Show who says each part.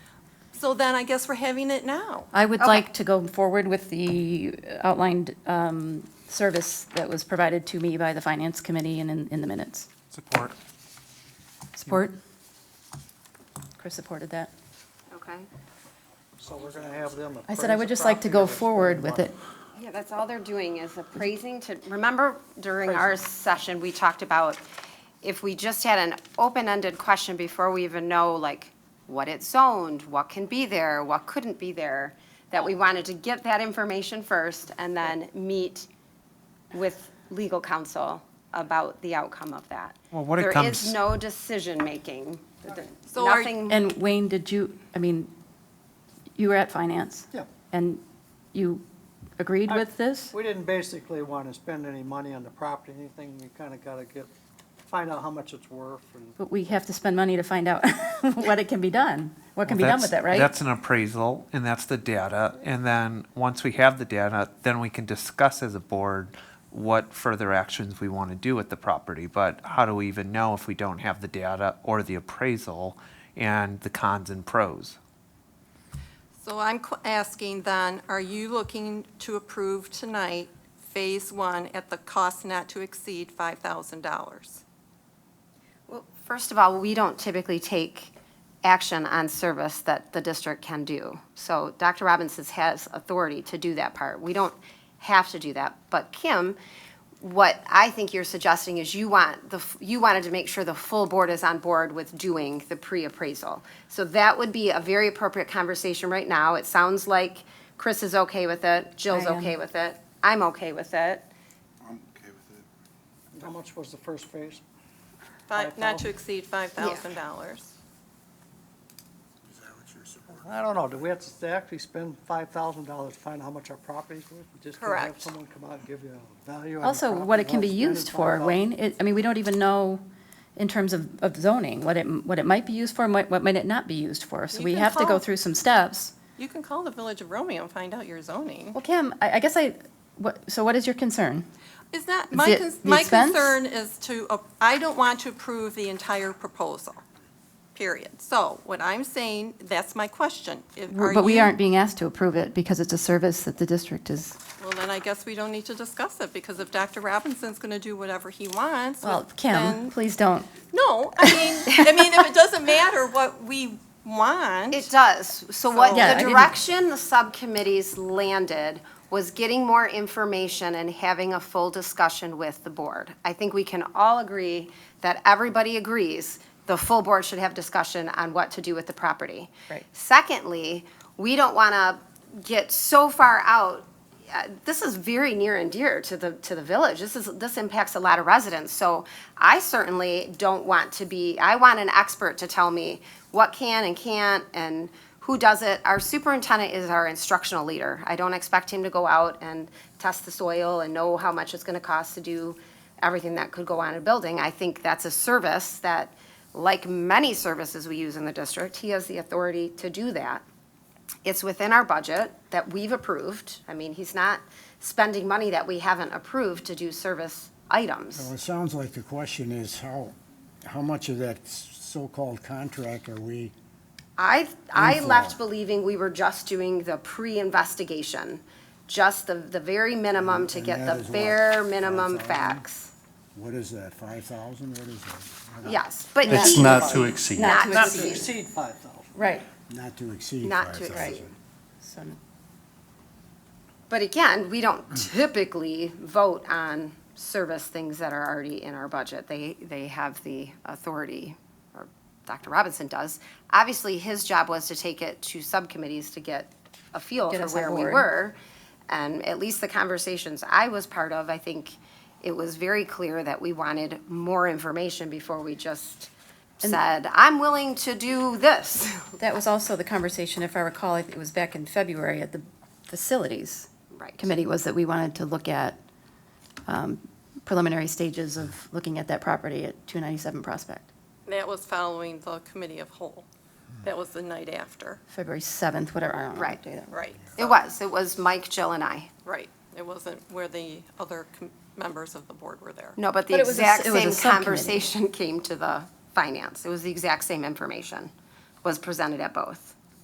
Speaker 1: So then I guess we're having it now.
Speaker 2: I would
Speaker 3: Okay.
Speaker 2: like to go forward with the outlined um, service that was provided to me by the Finance Committee and in, in the minutes.
Speaker 4: Support.
Speaker 2: Support? Chris supported that.
Speaker 3: Okay.
Speaker 5: So we're gonna have them.
Speaker 2: I said I would just like to go forward with it.
Speaker 3: Yeah, that's all they're doing is appraising to, remember during our session, we talked about if we just had an open-ended question before we even know, like, what it's zoned, what can be there, what couldn't be there, that we wanted to get that information first and then meet with legal counsel about the outcome of that.
Speaker 4: Well, what it
Speaker 3: There
Speaker 4: comes-
Speaker 3: is no decision-making. There-
Speaker 1: So are-
Speaker 3: Nothing,
Speaker 2: And Wayne, did you, I mean, you were at Finance?
Speaker 5: Yeah.
Speaker 2: And you agreed
Speaker 5: I-
Speaker 2: with this?
Speaker 5: We didn't basically wanna spend any money on the property, anything, we kinda gotta get, find out how much it's worth and.
Speaker 2: But we have to spend money to find out what it can be done, what can be done with
Speaker 4: That's-
Speaker 2: it, right?
Speaker 4: That's an appraisal, and that's the data. And then, once we have the data, then we can discuss as a board what further actions we want to do with the property. But how do we even know if we don't have the data or the appraisal and the cons and pros?
Speaker 1: So I'm qu- asking then, are you looking to approve tonight Phase One at the cost not to exceed $5,000?
Speaker 3: well, first of all, we don't typically take action on service that the district can do. So Dr. Robbins has authority to do that part. We don't have to do that. But Kim, what I think you're suggesting is you want the, f- you wanted to make sure the full board is on board with doing the pre-appraisal. So that would be a very appropriate conversation right now. It sounds like Chris is okay with it, Jill's
Speaker 2: I am.
Speaker 3: okay with it, I'm okay with it.
Speaker 6: I'm okay with it.
Speaker 5: How much was the first phase?
Speaker 1: Fi- Not to
Speaker 5: $5,000?
Speaker 1: exceed $5,000.
Speaker 6: Is that what you're supporting?
Speaker 5: I don't know, do we have to actually spend five thousand dollars to find out how much our property's worth? We just gonna have
Speaker 1: Correct.
Speaker 5: someone come out and give you a value on the
Speaker 2: Also,
Speaker 5: property,
Speaker 2: what it can be
Speaker 5: well, spend
Speaker 2: used
Speaker 5: it,
Speaker 2: for,
Speaker 5: $5,000.
Speaker 2: Wayne, it, I mean, we don't even know in terms of, of zoning, what it, what it might be used for, and what, what might it not be used for. So
Speaker 1: You
Speaker 2: we
Speaker 1: can
Speaker 2: have to go
Speaker 1: call-
Speaker 2: through some steps.
Speaker 1: You can call the Village of Romeo and find out your zoning.
Speaker 2: Well, Kim, I, I guess I, what, so what is your concern?
Speaker 1: Is that,
Speaker 2: Is
Speaker 1: my,
Speaker 2: it
Speaker 1: cons-
Speaker 2: the
Speaker 1: my
Speaker 2: expense?
Speaker 1: concern is to, a- I don't want to approve the entire proposal, period. So what I'm saying, that's my question. If- are
Speaker 2: But we
Speaker 1: you-
Speaker 2: aren't being asked to approve it because it's a service that the district is.
Speaker 1: Well, then I guess we don't need to discuss it, because if Dr. Robinson's going to do whatever he wants.
Speaker 2: Well,
Speaker 1: then-
Speaker 2: Kim, please don't.
Speaker 1: No, I mean, I mean, if it doesn't matter what we want.
Speaker 3: It does. So what,
Speaker 1: So- Yeah, I
Speaker 3: the
Speaker 2: didn't-
Speaker 3: direction the subcommittees landed was getting more information and having a full discussion with the board. I think we can all agree that everybody agrees the full board should have discussion on what to do with the property.
Speaker 2: Right.
Speaker 3: Secondly, we don't want to get so far out uh, this is very near and dear to the, to the village. This is, this impacts a lot of residents. So I certainly don't want to be, I want an expert to tell me what can and can't and who does it. Our superintendent is our instructional leader. I don't expect him to go out and test the soil and know how much it's gonna cost to do everything that could go on in a building. I think that's a service that, like many services we use in the district, he has the authority to do that it's within our budget that we've approved. I mean, he's not spending money that we haven't approved to do service
Speaker 7: Well,
Speaker 3: items.
Speaker 7: it sounds like the question is how, how much of that s- so-called contract are we,
Speaker 3: I, I
Speaker 7: Info.
Speaker 3: left believing we were just doing the pre-investigation, just the, the very minimum to
Speaker 7: Mm, And
Speaker 3: get
Speaker 7: that
Speaker 3: the
Speaker 7: is what,
Speaker 3: bare minimum
Speaker 7: 5,000?
Speaker 3: facts.
Speaker 7: what is that, five thousand, what is that?
Speaker 3: Yes, but
Speaker 6: It's
Speaker 3: he-
Speaker 6: not to exceed.
Speaker 3: Not
Speaker 5: Not to exceed five thousand.
Speaker 2: Right.
Speaker 7: Not to exceed
Speaker 3: Not
Speaker 7: five
Speaker 3: to exceed.
Speaker 7: thousand.
Speaker 2: So
Speaker 3: But again, we don't typically vote on service things that are already in our budget. They, they have the authority, or Dr. Robinson does. Obviously, his job was to take it to subcommittees to get a feel
Speaker 2: Get
Speaker 3: for
Speaker 2: us on
Speaker 3: where we
Speaker 2: board.
Speaker 3: were. And at least the conversations I was part of, I think it was very clear that we wanted more information before we just said, I'm willing to do this.
Speaker 2: That was also the conversation, if I recall, it was back in February at the facilities
Speaker 3: Right.
Speaker 2: committee, was that we wanted to look at um, preliminary stages of looking at that property at 297 Prospect,
Speaker 1: That was following the committee of whole. That was the night after,
Speaker 2: February 7th, whatever, I don't know. what
Speaker 3: Right.
Speaker 2: day that was.
Speaker 1: right?
Speaker 3: It was, it was Mike, Jill, and I.
Speaker 1: Right. It wasn't where the other com- members of the board were there.
Speaker 3: No, but the
Speaker 2: But it was a
Speaker 3: exact
Speaker 2: s- it was a
Speaker 3: same
Speaker 2: subcommittee.
Speaker 3: conversation came to the finance. It was the exact same information, was presented at both.